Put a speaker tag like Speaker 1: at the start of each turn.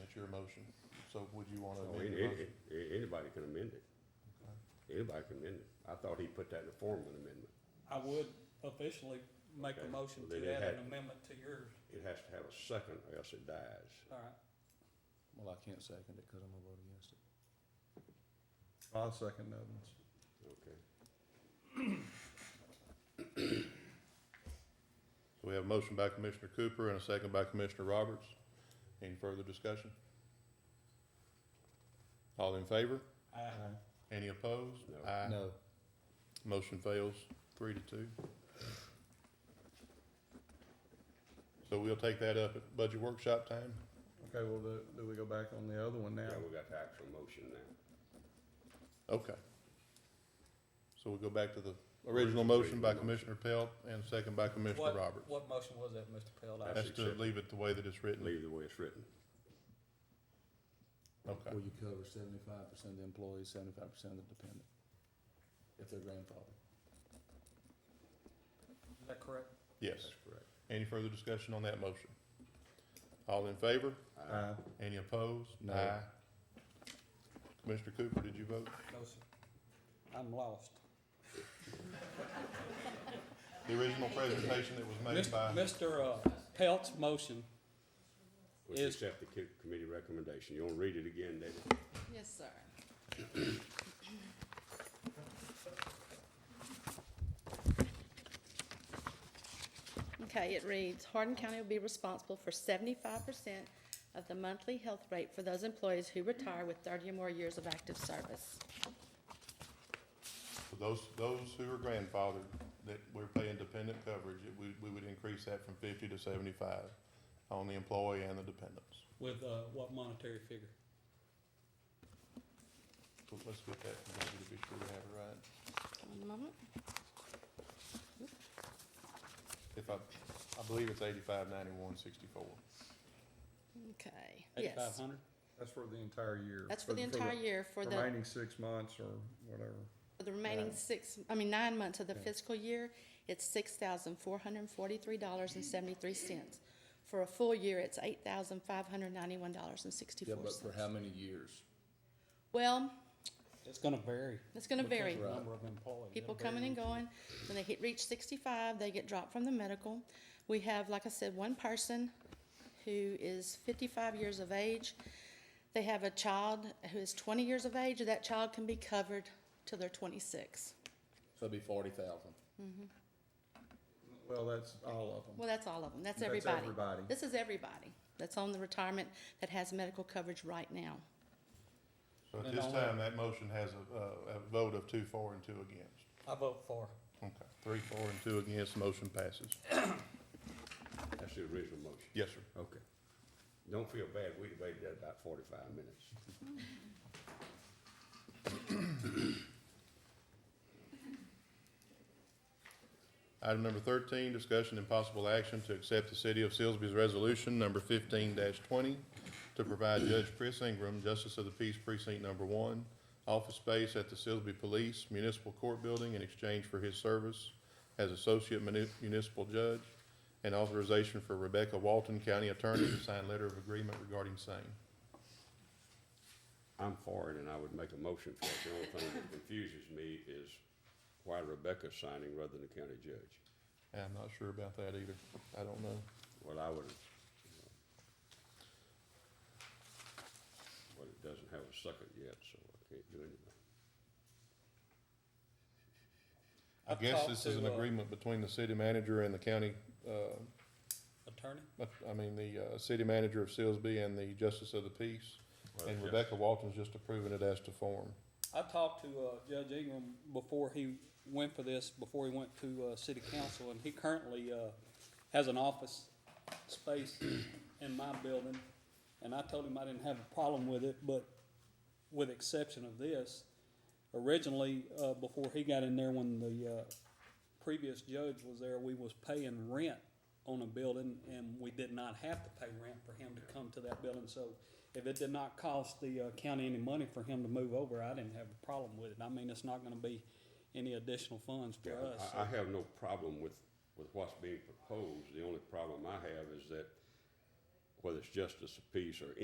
Speaker 1: motion, so would you wanna
Speaker 2: Oh,
Speaker 1: amend
Speaker 2: any-
Speaker 1: your motion?
Speaker 2: any- a- Anybody can amend it. Anybody can amend it. I thought he put that in the form of an amendment.
Speaker 3: I would officially make
Speaker 2: Okay,
Speaker 3: a motion
Speaker 2: well,
Speaker 3: to
Speaker 2: then it
Speaker 3: add
Speaker 2: had-
Speaker 3: an amendment to yours,
Speaker 2: It has to have a second or else it dies.
Speaker 3: all right.
Speaker 4: Well, I can't second it because I'm gonna vote against it.
Speaker 1: I'll second that one.
Speaker 2: Okay.
Speaker 1: So we have a motion by Commissioner Cooper and a second by Commissioner Roberts. Any further discussion? All in favor?
Speaker 3: I,
Speaker 5: Uh-huh.
Speaker 1: Any opposed?
Speaker 2: No.
Speaker 1: Aye.
Speaker 4: No,
Speaker 1: Motion fails, three to two. So we'll take that up at budget workshop time.
Speaker 6: Okay, well, do, do we go back on the other one now?
Speaker 2: Now we got the actual motion now.
Speaker 1: Okay. So we'll go back to the original motion by Commissioner Pelt and second by Commissioner
Speaker 3: what,
Speaker 1: Roberts.
Speaker 3: what motion was that, Mr. Pelt? I-
Speaker 2: That's
Speaker 1: That's to leave it the way that it's written.
Speaker 2: Leave it the way it's written.
Speaker 1: Okay.
Speaker 4: where you cover seventy-five percent of the employees, seventy-five percent of the dependent, if they're grandfathered.
Speaker 3: Is that correct?
Speaker 1: Yes.
Speaker 2: That's correct.
Speaker 1: Any further discussion on that motion? All in favor?
Speaker 2: Aye.
Speaker 6: Aye.
Speaker 1: Any opposed?
Speaker 4: No.
Speaker 1: Aye. Commissioner Cooper, did you vote?
Speaker 3: No, sir. I'm lost.
Speaker 1: The original presentation that was made by,
Speaker 3: Mr. uh, Pelt's motion,
Speaker 2: Which
Speaker 3: Is-
Speaker 2: accept the co- committee recommendation. You wanna read it again, David?
Speaker 5: Yes, sir. Okay, it reads, Hardin County will be responsible for seventy-five percent of the monthly health rate for those employees who retire with thirty or more years of active service.
Speaker 1: for those, those who are grandfathered, that we're paying dependent coverage, it- we, we would increase that from fifty to seventy-five on the employee and the dependents.
Speaker 3: with, uh, what monetary figure?
Speaker 1: So let's get that, from Debbie to be sure we have it right.
Speaker 5: One moment.
Speaker 1: If I, I believe it's eighty-five, ninety-one, sixty-four.
Speaker 5: Okay,
Speaker 3: Eighty-five
Speaker 5: yes.
Speaker 3: hundred?
Speaker 6: That's for the entire year.
Speaker 5: That's for the entire year for the,
Speaker 6: Remaining six months or whatever.
Speaker 5: for the remaining
Speaker 6: nine.
Speaker 5: six, I mean, nine months of the
Speaker 6: Yeah.
Speaker 5: fiscal year. It's six thousand four hundred and forty-three dollars and seventy-three cents. For a full year, it's eight thousand five hundred ninety-one dollars and
Speaker 4: Yeah,
Speaker 5: sixty-four
Speaker 4: but
Speaker 5: cents.
Speaker 4: for how many years?
Speaker 5: Well,
Speaker 3: It's gonna vary.
Speaker 5: it's gonna
Speaker 3: because
Speaker 5: vary.
Speaker 3: of the Number of employees.
Speaker 5: people
Speaker 3: It'll vary.
Speaker 5: coming and going. When they hit, reach sixty-five, they get dropped from the medical. We have, like I said, one person who is fifty-five years of age. They have a child who is twenty years of age, that child can be covered till they're twenty-six.
Speaker 4: So it'd be forty thousand.
Speaker 6: Well, that's all of them.
Speaker 5: Mm-hmm. Well, that's all of them, that's
Speaker 6: That's
Speaker 5: everybody.
Speaker 6: everybody.
Speaker 5: This is everybody that's on the retirement that has medical coverage right now.
Speaker 1: So at
Speaker 3: And
Speaker 1: this
Speaker 3: all
Speaker 1: time, that motion has a, a, a vote of two for and two against.
Speaker 3: I vote for.
Speaker 1: Okay, three for and two against, motion passes.
Speaker 2: That's the original motion.
Speaker 1: Yes, sir.
Speaker 2: Okay. Don't feel bad. We debated that about forty-five minutes.
Speaker 1: Item number thirteen, discussion and possible action to accept the City of Salisbury's resolution number fifteen twenty to provide Judge Chris Ingram, Justice of the Peace Precinct Number One, office space at the Salisbury Police Municipal Court Building in exchange for his service as Associate Muni- Municipal Judge, and authorization for Rebecca Walton, County Attorney, to sign letter of agreement regarding same.
Speaker 2: I'm for it and I would make a motion for it. The only thing that confuses me is why Rebecca's signing rather than the county judge.
Speaker 1: And I'm not sure about that either. I don't know.
Speaker 2: Well, I would, but it doesn't have a second yet, so I can't do anything.
Speaker 1: I
Speaker 3: I've
Speaker 1: guess
Speaker 3: talked
Speaker 1: this is an
Speaker 3: to, uh,
Speaker 1: agreement between the city manager and the county, uh,
Speaker 3: Attorney?
Speaker 1: But, I mean, the, uh, city manager of Salisbury and the justice of the peace,
Speaker 2: Well,
Speaker 1: and
Speaker 2: yeah.
Speaker 1: Rebecca Walton's just approving it as to form.
Speaker 3: I talked to uh, Judge Ingram before he went for this, before he went to uh, city council, and he currently uh, has an office space in my building. And I told him I didn't have a problem with it, but with exception of this, originally, uh, before he got in there, when the uh, previous judge was there, we was paying rent on a building, and we did not have to pay rent for him to come to that building, so if it did not cost the uh, county any money for him to move over, I didn't have a problem with it. I mean, it's not gonna be any additional funds for
Speaker 2: Yeah,
Speaker 3: us.
Speaker 2: I, I have no problem with, with what's being proposed. The only problem I have is that whether it's justice of peace or